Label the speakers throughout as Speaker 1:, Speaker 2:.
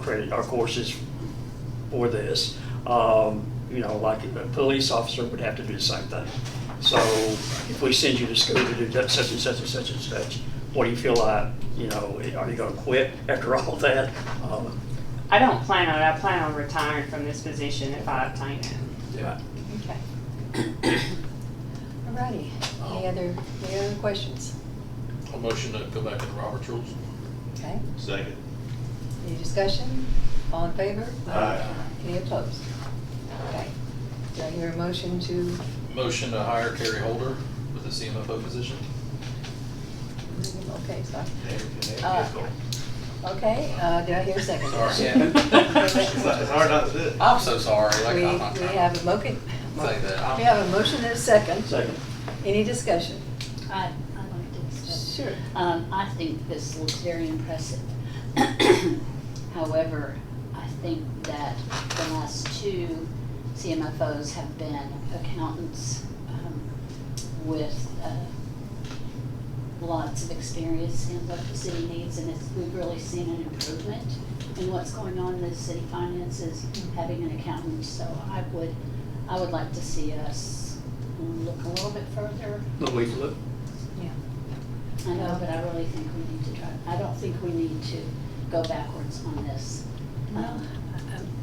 Speaker 1: credit our courses for this. Um, You know, like a police officer would have to do the same thing. So if we send you to school to do that, such and such and such and such, what do you feel like, you know, are you gonna quit after all that? Um,
Speaker 2: I don't plan on it. I plan on retiring from this position if I obtain it.
Speaker 1: yeah.
Speaker 3: Okay. Alrighty, any other, any other questions?
Speaker 4: A motion to go back to the Robert's rules.
Speaker 3: Okay,
Speaker 5: Second.
Speaker 3: any discussion? All in favor?
Speaker 5: Aye.
Speaker 3: Any opposed? Okay, do I hear a motion to,
Speaker 4: Motion to hire Carrie Holder with the CMFO position.
Speaker 3: okay, sorry. Uh, Okay, uh, do I hear a second?
Speaker 4: Sorry.
Speaker 5: It's not- it's hard not to do it.
Speaker 4: I'm so sorry, like,
Speaker 3: We,
Speaker 4: I'm not
Speaker 3: we
Speaker 4: trying
Speaker 3: have
Speaker 4: to
Speaker 3: a motion.
Speaker 4: say that. I'm-
Speaker 3: We have a motion and a second.
Speaker 1: Second.
Speaker 3: Any discussion?
Speaker 6: I, I like this.
Speaker 3: Sure.
Speaker 6: Um, I think this looks very impressive. However, I think that the last two CMFOs have been accountants um, with uh, lots of experience in what the city needs, and it's, we've really seen an improvement in what's going on in the city finances, having an accountant. So I would, I would like to see us look a little bit further
Speaker 1: Louise, look.
Speaker 3: Yeah.
Speaker 6: I know, but I really think we need to try, I don't think we need to go backwards on this. Um,
Speaker 3: No,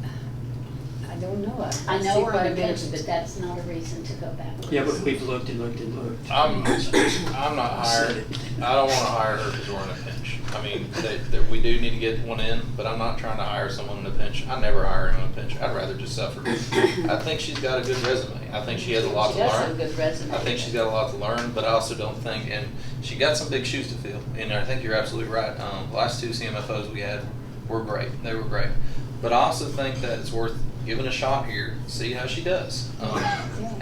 Speaker 3: I don't know.
Speaker 6: I know
Speaker 3: see
Speaker 6: we're
Speaker 3: quite
Speaker 6: on
Speaker 3: a
Speaker 6: a
Speaker 3: bit of-
Speaker 6: but that's not a reason to go backwards.
Speaker 1: Yeah, but we've looked and looked and looked.
Speaker 4: I'm, I'm not hired, I don't wanna hire her because we're in a pinch. I mean, that, that we do need to get one in, but I'm not trying to hire someone in a pinch. I never hire in a pinch. I'd rather just suffer. I think she's got a good resume. I think she has a lot to
Speaker 6: She does have a
Speaker 4: learn.
Speaker 6: good resume.
Speaker 4: I think she's got a lot to learn, but I also don't think, and she got some big shoes to fill. And I think you're absolutely right. Um, last two CMFOs we had were great. They were great. But I also think that it's worth giving a shot here, see how she does. Um,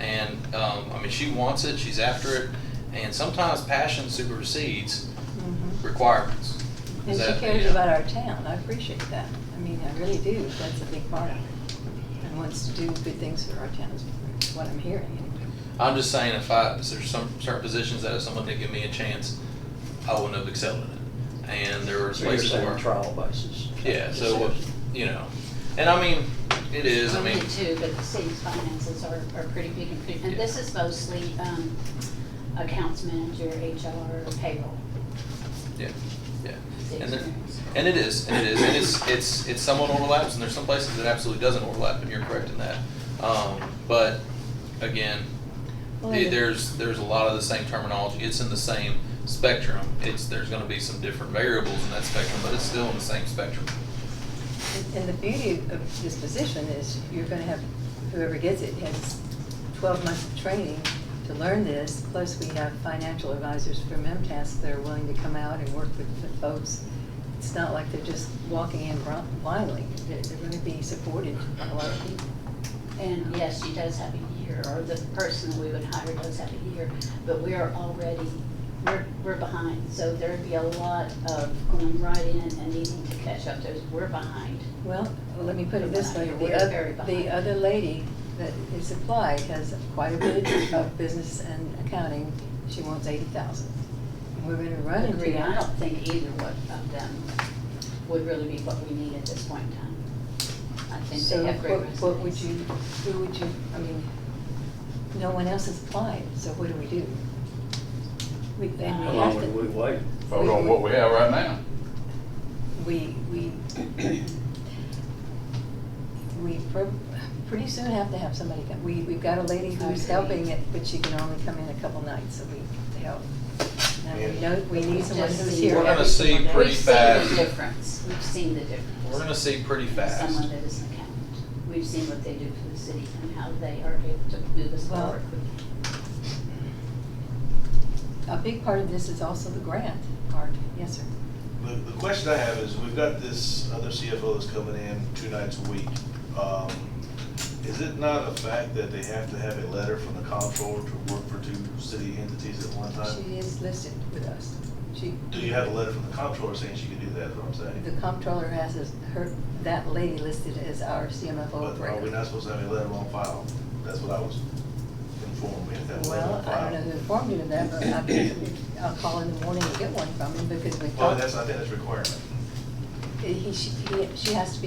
Speaker 4: and um, I mean, she wants it. She's after it. And sometimes passion supersedes
Speaker 3: Mhm.
Speaker 4: requirements.
Speaker 3: And
Speaker 4: Is
Speaker 3: she
Speaker 4: that-
Speaker 3: cares
Speaker 4: yeah.
Speaker 3: about our town, I appreciate that. I mean, I really do, that's a big part of it. And wants to do good things for our town, is what I'm hearing. anyway.
Speaker 4: I'm just saying, if I if there's some certain positions that if someone did give me a chance, I wouldn't have excelled in it. And there were
Speaker 1: So you're
Speaker 4: places where
Speaker 1: saying trial basis.
Speaker 4: Yeah, so, you know, and I mean, it is, I mean,
Speaker 6: did too, but the city's finances are, are pretty big and pretty, and
Speaker 4: Yeah.
Speaker 6: this is mostly, um, accounts manager, HR, payroll.
Speaker 4: yeah, yeah.
Speaker 6: is the
Speaker 4: And there,
Speaker 6: experience.
Speaker 4: and it is, and it is, and it's, it's, it's somewhat overlaps, and there's some places that absolutely doesn't overlap, and you're correct in that. Um, but again,
Speaker 3: Well,
Speaker 4: the-
Speaker 3: yeah.
Speaker 4: there's, there's a lot of the same terminology, it's in the same spectrum. It's, there's gonna be some different variables in that spectrum, but it's still in the same spectrum.
Speaker 3: And- And the beauty of this position is you're gonna have, whoever gets it has twelve months of training to learn this, plus we have financial advisors from MTS that are willing to come out and work with the folks. It's not like they're just walking in bri- blindly, they're, they're gonna be supported by a lot of people.
Speaker 6: And yes, she does have a year, or the person that we would hire does have a year, but we are already, we're, we're behind. So there'd be a lot of going right in and needing to catch up, there's, we're behind.
Speaker 3: Well, let me put it this way,
Speaker 6: We
Speaker 3: the
Speaker 6: are
Speaker 3: other,
Speaker 6: very
Speaker 3: the
Speaker 6: behind.
Speaker 3: other lady that is applied has quite a bit of business and accounting, she wants eighty thousand. And we're gonna run into
Speaker 6: Agree, I
Speaker 3: that.
Speaker 6: don't think either one of them would really be what we need at this point in time. I think
Speaker 3: So
Speaker 6: they have great
Speaker 3: what,
Speaker 6: resumes.
Speaker 3: what would you, who would you, I mean, no one else has applied, so what do we do? We, and we
Speaker 1: How
Speaker 3: have
Speaker 1: long would we
Speaker 3: to,
Speaker 1: wait?
Speaker 7: Vote on what we have right now.
Speaker 3: we, we, we prob- pretty soon have to have somebody come. We, we've got a lady who's
Speaker 6: Agreed.
Speaker 3: helping it, but she can only come in a couple nights a week to help. And we
Speaker 5: Yeah.
Speaker 3: know, we need someone
Speaker 6: Just
Speaker 3: who's
Speaker 6: see
Speaker 3: here
Speaker 4: We're gonna
Speaker 3: every
Speaker 4: see
Speaker 3: single day.
Speaker 4: pretty fast.
Speaker 6: We've seen the difference, we've seen the difference.
Speaker 4: We're gonna see pretty
Speaker 6: from
Speaker 4: fast.
Speaker 6: Someone that is an accountant, we've seen what they do for the city and how they are able to move us
Speaker 3: Well,
Speaker 6: forward quickly.
Speaker 3: A big part of this is also the grant part, yes, sir.
Speaker 5: The, the question I have is, we've got this other CFO that's coming in two nights a week. Um, Is it not a fact that they have to have a letter from the comptroller to work for two city entities at one time?
Speaker 3: She is listed with us. She.
Speaker 5: Uh, Do you have a letter from the comptroller saying she can do that, is what I'm
Speaker 3: The
Speaker 5: saying?
Speaker 3: comptroller has his- her, that lady listed as our CMFO
Speaker 5: But are we
Speaker 3: director.
Speaker 5: not supposed to have a letter on file? That's what I was informed, we have to have a letter
Speaker 3: Well,
Speaker 5: on
Speaker 3: I don't know
Speaker 5: file.
Speaker 3: who informed you of that, but I can- I'll call in the morning and get one from him because we
Speaker 5: Well,
Speaker 3: talked.
Speaker 5: that's, I think that's a requirement.
Speaker 3: He, she, he- she has to be